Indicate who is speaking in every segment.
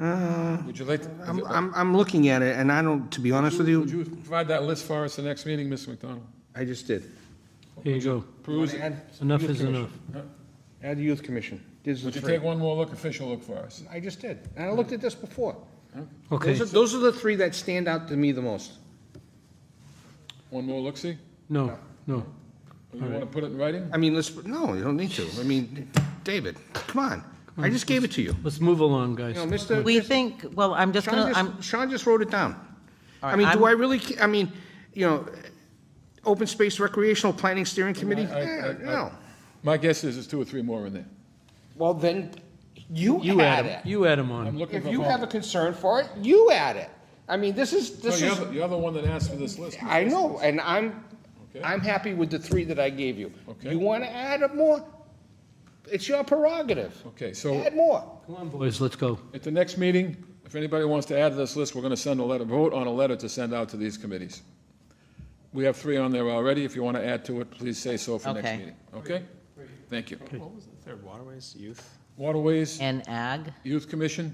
Speaker 1: Uh-huh.
Speaker 2: Would you like, to-
Speaker 3: I'm, I'm, I'm looking at it, and I don't, to be honest with
Speaker 2: would
Speaker 3: you,
Speaker 2: you provide that list for us the next meeting, Mr. McDonald?
Speaker 3: I just did.
Speaker 4: Here you go.
Speaker 2: Peruse, it.
Speaker 3: Add
Speaker 4: Enough
Speaker 3: youth
Speaker 4: is
Speaker 3: commission.
Speaker 4: enough.
Speaker 3: Add youth commission. This
Speaker 2: would
Speaker 3: is
Speaker 2: you
Speaker 3: three.
Speaker 2: take one more look, official look for us?
Speaker 3: I just did, and I looked at this before.
Speaker 4: Okay,
Speaker 3: Those are, those are the three that stand out to me the most.
Speaker 2: One more look-see?
Speaker 4: no, no.
Speaker 2: You want to put it in writing?
Speaker 3: I mean, let's, no, you don't need to. I mean, David, come on. I just gave it to you.
Speaker 4: Let's move along,
Speaker 3: You know,
Speaker 4: guys.
Speaker 3: Mr.
Speaker 1: We think, well, I'm just
Speaker 3: Sean
Speaker 1: going to, I'm,
Speaker 3: just, Sean just wrote it down. I
Speaker 1: right,
Speaker 3: mean, do
Speaker 1: I'm-
Speaker 3: I really, ca- I mean, you know, open space recreational planning steering committee?
Speaker 2: I- I-
Speaker 3: Eh,
Speaker 2: I-
Speaker 3: No.
Speaker 2: My guess is there's two or three more in there.
Speaker 3: Well, then, you
Speaker 4: You
Speaker 3: add
Speaker 4: add
Speaker 3: it.
Speaker 4: 'em. You add 'em
Speaker 2: I'm
Speaker 4: on.
Speaker 2: looking
Speaker 3: If
Speaker 2: for.
Speaker 3: you
Speaker 2: more.
Speaker 3: have a concern for it, you add it. I mean, this is,
Speaker 2: No,
Speaker 3: this
Speaker 2: you're
Speaker 3: is,
Speaker 2: the- You're the one that asked for this list.
Speaker 3: I know, and I'm,
Speaker 2: Okay.
Speaker 3: I'm happy with the three that I gave you.
Speaker 2: Okay.
Speaker 3: You want to add up more? It's your prerogative.
Speaker 2: Okay, so
Speaker 3: Add more.
Speaker 4: Come on, boys, let's go.
Speaker 2: at the next meeting, if anybody wants to add to this list, we're going to send a letter, vote on a letter to send out to these committees. We have three on there already. If you want to add to it, please say so for next
Speaker 1: Okay.
Speaker 2: meeting. Okay? Thank you.
Speaker 5: What was the third, waterways, youth?
Speaker 2: Waterways,
Speaker 1: and ag,
Speaker 2: Youth Commission,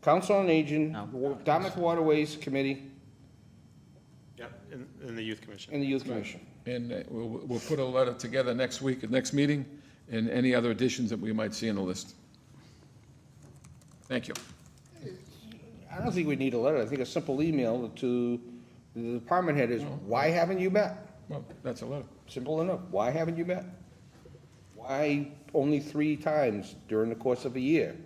Speaker 3: Council on Aging,
Speaker 1: No.
Speaker 3: Wa- Dartmouth Waterways Committee,
Speaker 5: Yep, and, and the youth commission.
Speaker 3: and the Youth Commission.
Speaker 2: and uh, we'll, we'll put a letter together next week, at next meeting, and any other additions that we might see in the list. Thank you.
Speaker 3: I don't think we need a letter. I think a simple email to the department head is, why haven't you met?
Speaker 2: Well, that's a letter.
Speaker 3: Simple enough. Why haven't you met? Why only three times during the course of a year?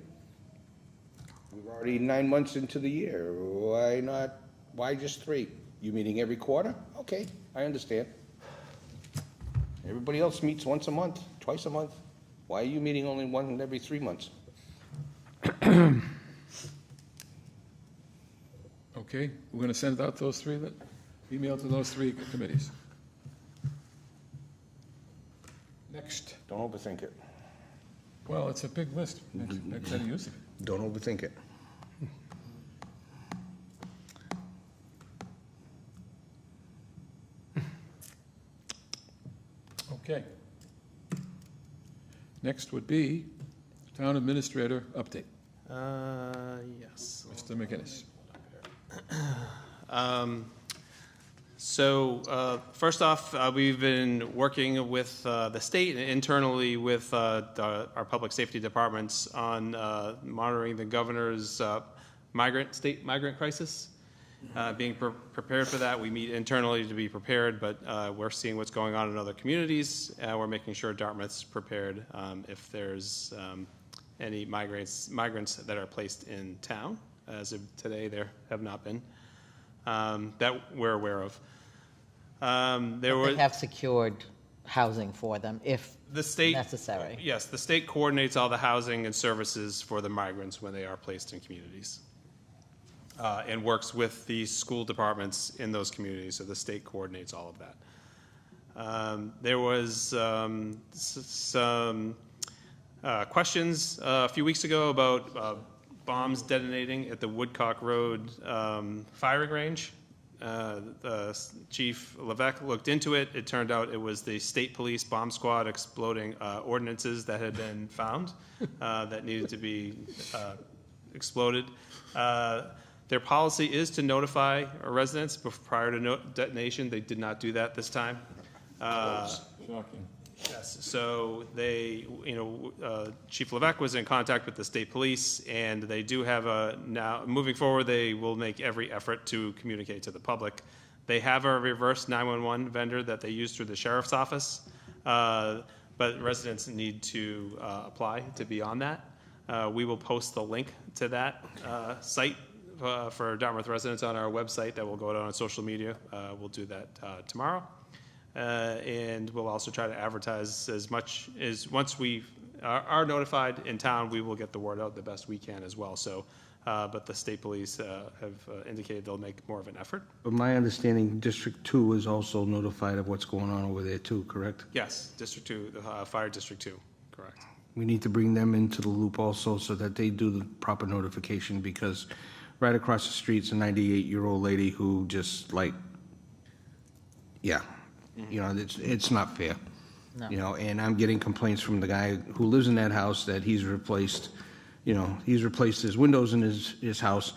Speaker 3: We're already nine months into the year. Why not, why just three? You meeting every quarter? Okay, I understand. Everybody else meets once a month, twice a month. Why are you meeting only one every three months?
Speaker 2: Okay, we're going to send out those three, that, email to those three committees. Next,
Speaker 3: Don't overthink it.
Speaker 2: well, it's a big list. Next, next any use of it.
Speaker 3: Don't overthink it.
Speaker 2: Okay. Next would be Town Administrator update,
Speaker 5: Uh, yes.
Speaker 2: Mr. McGinnis.
Speaker 5: Um, So, uh, first off, uh, we've been working with uh, the state and internally with uh, the- our public safety departments on uh, monitoring the governor's uh, migrant, state migrant crisis. Uh, Being pre- prepared for that, we meet internally to be prepared, but uh, we're seeing what's going on in other communities. Uh, We're making sure Dartmouth's prepared um, if there's um, any migrants, migrants that are placed in town. As of today, there have not been um, that we're aware of. Um, there
Speaker 1: they
Speaker 5: were
Speaker 1: have secured housing for them if
Speaker 5: the state
Speaker 1: necessary.
Speaker 5: Yes, the state coordinates all the housing and services for the migrants when they are placed in communities, uh, and works with the school departments in those communities. So the state coordinates all of that. Um, there was um, s- some uh, questions uh, a few weeks ago about uh, bombs detonating at the Woodcock Road um, firing range. Uh, the s- Chief Levesque looked into it. It turned out it was the state police bomb squad exploding uh, ordinances that had been found uh, that needed to be uh, exploded. Uh, Their policy is to notify residents bef- prior to no- detonation. They did not do that this time. Uh,
Speaker 2: Shocking.
Speaker 5: Yes, so they, you know, uh, Chief Levesque was in contact with the state police, and they do have a, now, moving forward, they will make every effort to communicate to the public. They have a reverse 911 vendor that they use through the sheriff's office, uh, but residents need to uh, apply to be on that. Uh, We will post the link to that uh, site uh, for Dartmouth residents on our website that will go out on social media. Uh, We'll do that uh, tomorrow. Uh, And we'll also try to advertise as much as, once we are are notified in town, we will get the word out the best we can as well. So, uh, but the state police uh, have uh, indicated they'll make more of an effort.
Speaker 3: But my understanding, District Two is also notified of what's going on over there too, correct?
Speaker 5: Yes, District Two, the uh, Fire District Two, correct.
Speaker 3: We need to bring them into the loop also so that they do the proper notification because right across the street's a 98-year-old lady who just like, yeah, you know, it's, it's not fair. You know, and I'm getting complaints from the guy who lives in that house that he's replaced, you know, he's replaced his windows in his, his house.